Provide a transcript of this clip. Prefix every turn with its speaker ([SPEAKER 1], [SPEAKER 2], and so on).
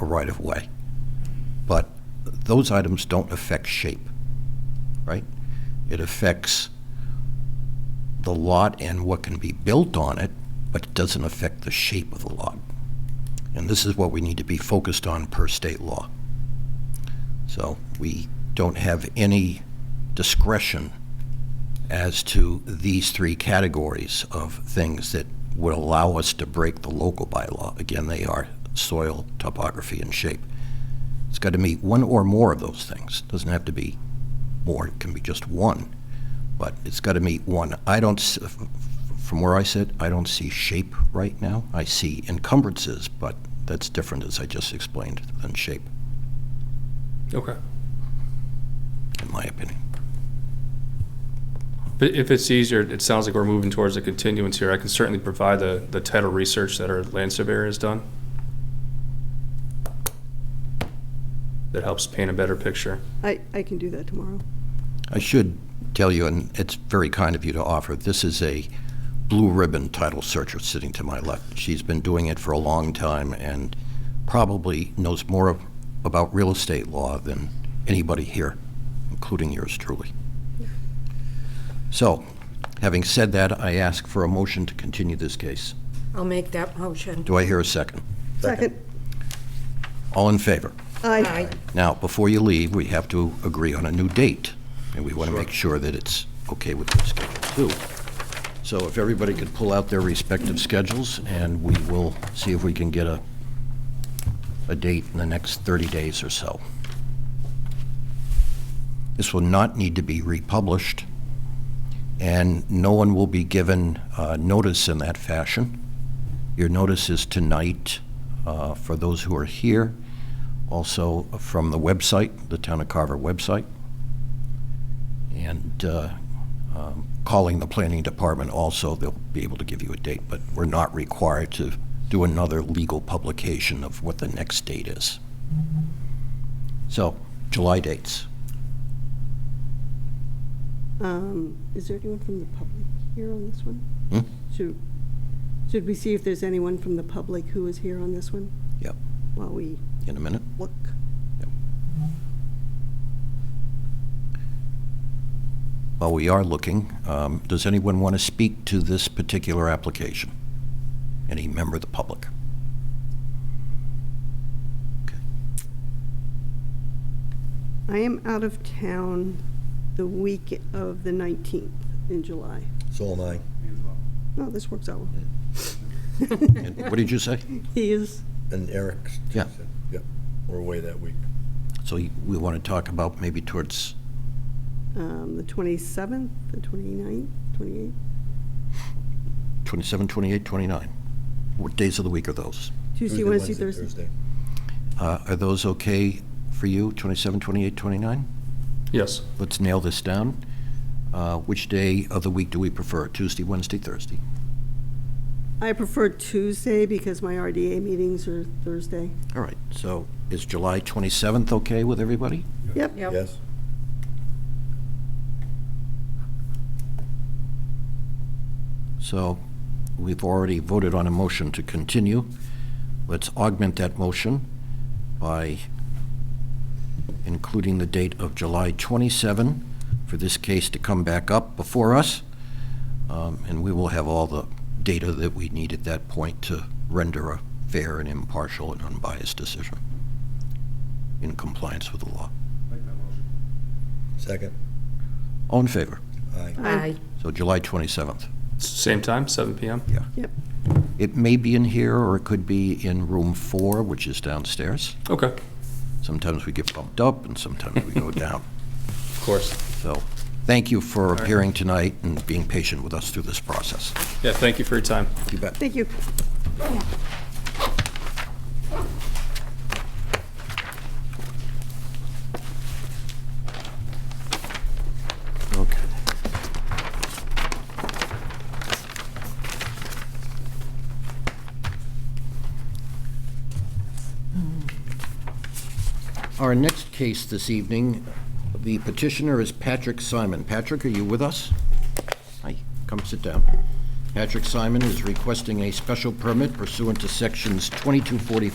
[SPEAKER 1] a right-of-way. But those items don't affect shape, right? It affects the lot and what can be built on it, but it doesn't affect the shape of the lot. And this is what we need to be focused on per state law. So we don't have any discretion as to these three categories of things that would allow us to break the local bylaw. Again, they are soil, topography, and shape. It's got to meet one or more of those things. Doesn't have to be more, it can be just one, but it's got to meet one. I don't, s- f- f- from where I sit, I don't see shape right now. I see encumbrances, but that's different, as I just explained, than shape,
[SPEAKER 2] Okay.
[SPEAKER 1] in my opinion.
[SPEAKER 2] But if it's easier, it sounds like we're moving towards a continuance here. I can certainly provide the, the title research that our land surveyor has done. That helps paint a better picture.
[SPEAKER 3] I, I can do that tomorrow.
[SPEAKER 1] I should tell you, and it's very kind of you to offer, this is a blue ribbon title searcher sitting to my left. She's been doing it for a long time and probably knows more of- about real estate law than anybody here, including yours truly. So, having said that, I ask for a motion to continue this case.
[SPEAKER 4] I'll make that motion.
[SPEAKER 1] Do I hear a second?
[SPEAKER 3] Second.
[SPEAKER 1] All in favor?
[SPEAKER 3] Aye.
[SPEAKER 4] Aye.
[SPEAKER 1] Now, before you leave, we have to agree on a new date, and we want to make sure that it's okay with the schedule, too. So if everybody could pull out their respective schedules, and we will see if we can get a, a date in the next 30 days or so. This will not need to be republished, and no one will be given uh, notice in that fashion. Your notice is tonight uh, for those who are here, also from the website, the Town of Carver website, and uh, um, calling the planning department also, they'll be able to give you a date, but we're not required to do another legal publication of what the next date is. So, July dates.
[SPEAKER 3] Um, Is there anyone from the public here on this one?
[SPEAKER 1] Hmm?
[SPEAKER 3] Should, should we see if there's anyone from the public who is here on this one
[SPEAKER 1] Yep,
[SPEAKER 3] while we
[SPEAKER 1] in a minute.
[SPEAKER 3] look?
[SPEAKER 1] While we are looking, um, does anyone want to speak to this particular application? Any member of the public? Okay.
[SPEAKER 3] I am out of town the week of the 19th in July.
[SPEAKER 1] So am I.
[SPEAKER 3] No, this works out. well.
[SPEAKER 1] And What did you say?
[SPEAKER 3] He is,
[SPEAKER 5] And Eric's.
[SPEAKER 1] Yeah.
[SPEAKER 5] Yep, we're away that week.
[SPEAKER 1] So you- we want to talk about maybe towards,
[SPEAKER 3] um, the 27th, the 29th, 28th,
[SPEAKER 1] 27, 28, 29. What days of the week are those?
[SPEAKER 3] Tuesday, Wednesday, Thursday.
[SPEAKER 1] Uh, Are those okay for you, 27, 28, 29?
[SPEAKER 2] Yes.
[SPEAKER 1] Let's nail this down. Uh, Which day of the week do we prefer, Tuesday, Wednesday, Thursday?
[SPEAKER 3] I prefer Tuesday because my RDA meetings are Thursday.
[SPEAKER 1] All right, so is July 27th okay with everybody?
[SPEAKER 3] Yep,
[SPEAKER 4] Yep.
[SPEAKER 5] Yes,
[SPEAKER 1] So we've already voted on a motion to continue. Let's augment that motion by including the date of July 27 for this case to come back up before us. Um, And we will have all the data that we need at that point to render a fair and impartial and unbiased decision in compliance with the law.
[SPEAKER 5] second,
[SPEAKER 1] All in favor?
[SPEAKER 5] aye.
[SPEAKER 4] Aye.
[SPEAKER 1] So July 27th.
[SPEAKER 2] Same time, seven PM?
[SPEAKER 3] yep.
[SPEAKER 1] It may be in here, or it could be in room four, which is downstairs.
[SPEAKER 2] Okay, of
[SPEAKER 1] Sometimes we get bumped up and sometimes we go down.
[SPEAKER 2] course.
[SPEAKER 1] So, thank you for appearing tonight and being patient with us through this process.
[SPEAKER 2] Yeah, thank you for your time.
[SPEAKER 1] You bet.
[SPEAKER 3] Thank you.
[SPEAKER 1] Okay. Our next case this evening, the petitioner is Patrick Simon. Patrick, are you with us? Hi, come sit down. Patrick Simon is requesting a special permit pursuant to Sections 2244